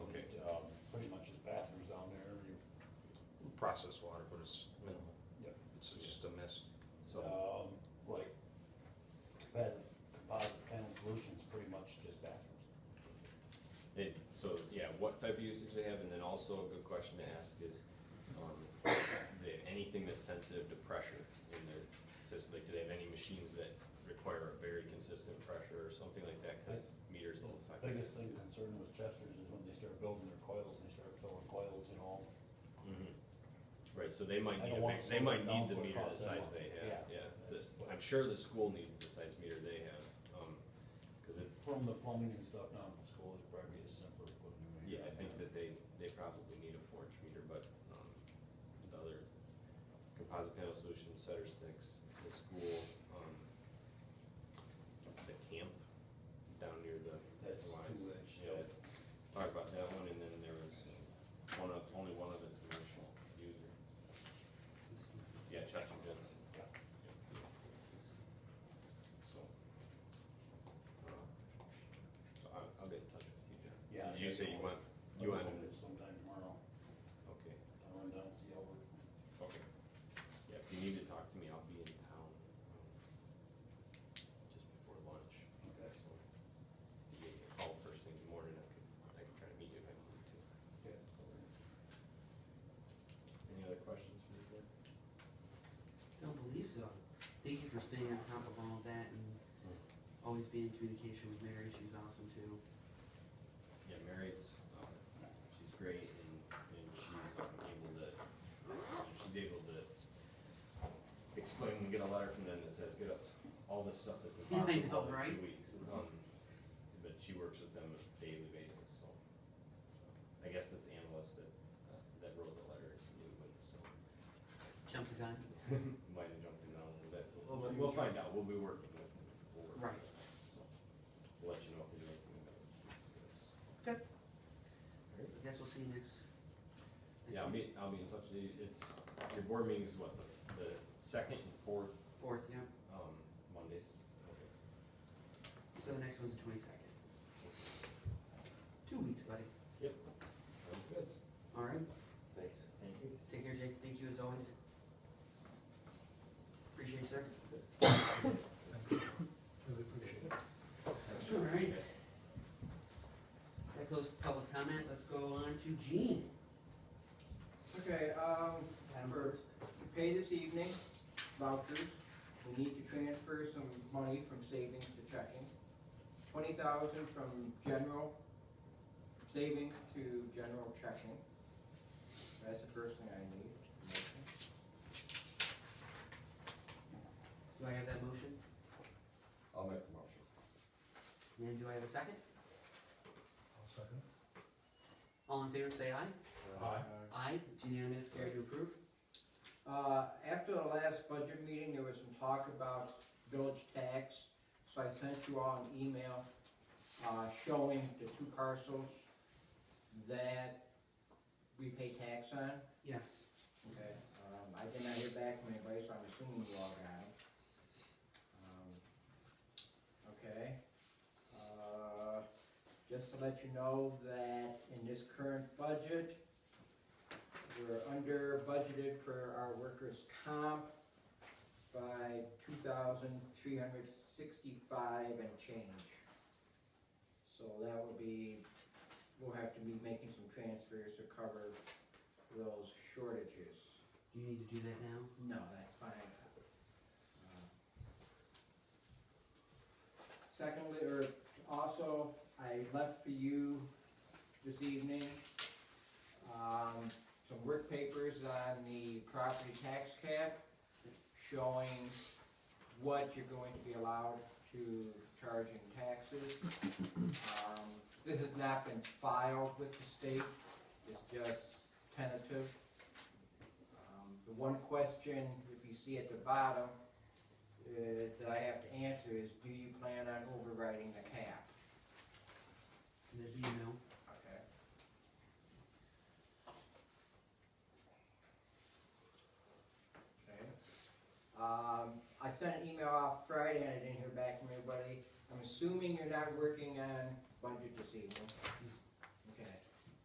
um, processed water, but it's minimal. Yep. It's just a mist. So, Um, like, composite, composite panel solutions, pretty much just bathrooms. and, so, yeah, what type of usage they have, and then also a good question to ask is, um, the, anything that's sensitive to pressure in their system, like, do they have any machines that require a very consistent pressure or something like that, cause meters will affect that. Biggest thing concern was Chester's is when they started building their coils, they started filling coils and all. Mhm. Right, so they might I need, don't a want big- they might someone need the else to meter the cost them size more. they have, Yeah, yeah. that's The- what- I'm sure the school needs the size meter they have, um, cause it, From the plumbing and stuff down at the school, it's probably a simpler equipment. yeah, I think that they, they probably need a four inch meter, but, um, the other composite panel solutions, setter sticks, the school, um, the camp down near the. That's the lines. two inch, Yeah, yeah. talked about that one, and then there was one of, only one other commercial user. Yeah, Chester General. Yeah. So. uh, So I'll, I'll get in touch with you, John. Yeah. Did You say you want, you I'll want, go there Sometime tomorrow, okay, I'll run down and see how we're, okay. Yeah, if you need to talk to me, I'll be in town, um, just before lunch. okay, So, you give me a call first thing in the morning, I could, I could try to meet you if I need to. good. Any other questions from the board? Don't believe so. Thank you for staying on top of all of that and always being in communication with Mary. She's awesome too. Yeah, Mary's, um, she's great and, and she's um, able to, she's able to explain and get a letter from them that says, get us all this stuff that's Yeah, I impossible know, in right? two weeks. Um, But she works with them on a daily basis, so. I guess this analyst that, uh, that wrote the letter is new, but so, Jump the gun. might have jumped in on a little bit. Oh, We'll, but- we'll find out, we'll be working with them. We'll work with Right. them. So, we'll let you know if there's anything about it. Okay. All right. I guess we'll see you next. next Yeah, I'll week. be, I'll be in touch with you. It's, your board meeting is what, the, the second and fourth, Fourth, yeah. um, Mondays? Okay. So the next one's the twenty-second. Two weeks, buddy. Yep. Sounds good. All right. Thanks. Thank you. Take care, Jake. Thank you as always. Appreciate you, sir. Really appreciate it. All right. That closes public comment. Let's go on to Gene. Okay, um, Adam for first. pay this evening vouchers, we need to transfer some money from savings to checking. Twenty thousand from general savings to general checking. That's the first thing I need. Do I have that motion? I'll make the motion. And do I have a second? I'll second. All in favor, say aye. Aye. Aye. It's unanimous. Carried to approve. Uh, after the last budget meeting, there was some talk about village tax, so I sent you all an email, uh, showing the two parcels that we pay tax on. Yes. Okay, um, I did not hear back from anybody, so I'm assuming you all got it. Um, Okay, uh, just to let you know that in this current budget, we're under budgeted for our workers' comp by two thousand three hundred sixty-five and change. So that will be, we'll have to be making some transfers to cover those shortages. Do you need to do that now? No, that's fine. Uh, Secondly, or also, I left for you this evening, um, some work papers on the property tax cap showing what you're going to be allowed to charge in taxes. Um, This has not been filed with the state, it's just tentative. Um, The one question, if you see at the bottom, uh, that I have to answer is, do you plan on overriding the cap? And then do you know? Okay. Okay. Um, I sent an email off Friday and I didn't hear back from anybody. I'm assuming you're not working on budget this evening.